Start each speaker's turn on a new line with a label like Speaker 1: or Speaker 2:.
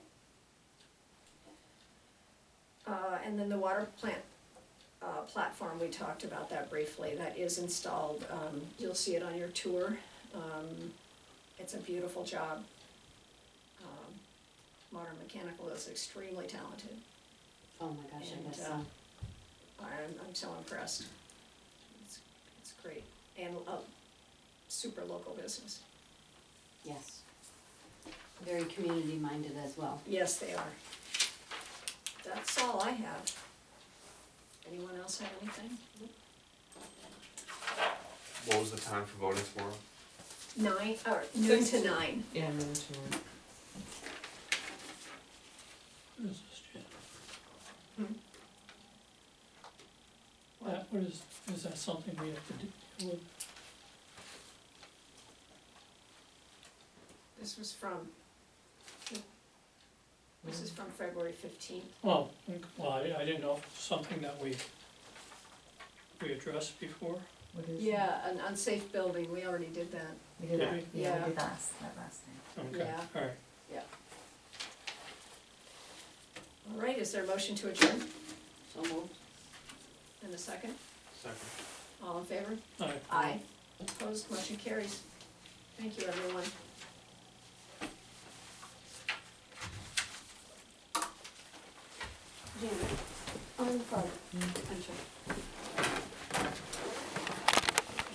Speaker 1: Uh, and then the water plant, uh, platform, we talked about that briefly, that is installed, um, you'll see it on your tour. Um, it's a beautiful job. Um, Modern Mechanical is extremely talented,
Speaker 2: Oh my gosh, I
Speaker 1: And,
Speaker 2: guess
Speaker 1: uh,
Speaker 2: so.
Speaker 1: I'm, I'm so impressed. It's, it's great, and a super local business,
Speaker 2: Yes. Very community minded as well.
Speaker 1: yes, they are. That's all I have. Anyone else have anything?
Speaker 3: What was the time for voting tomorrow?
Speaker 1: Nine, or noon to
Speaker 4: Six.
Speaker 1: nine.
Speaker 4: Yeah, I'm in too.
Speaker 1: Hmm.
Speaker 5: That, what is, is that something we have to do with?
Speaker 1: This was from, this is from February fifteenth.
Speaker 5: Oh, okay. well, I, I didn't know, if it's something that we, we addressed before,
Speaker 6: What is it?
Speaker 1: Yeah, an unsafe building, we already did that,
Speaker 6: We did that, yeah,
Speaker 1: Yeah.
Speaker 6: we did that, last- that last night.
Speaker 5: okay,
Speaker 1: Yeah.
Speaker 5: alright.
Speaker 1: All right, is there a motion to adjourn
Speaker 2: So moved.
Speaker 1: in a second?
Speaker 3: Second.
Speaker 1: All in favor?
Speaker 5: Alright.
Speaker 1: Opposed, motion carries. Thank you, everyone.
Speaker 2: Janet, on the phone. I'm sure.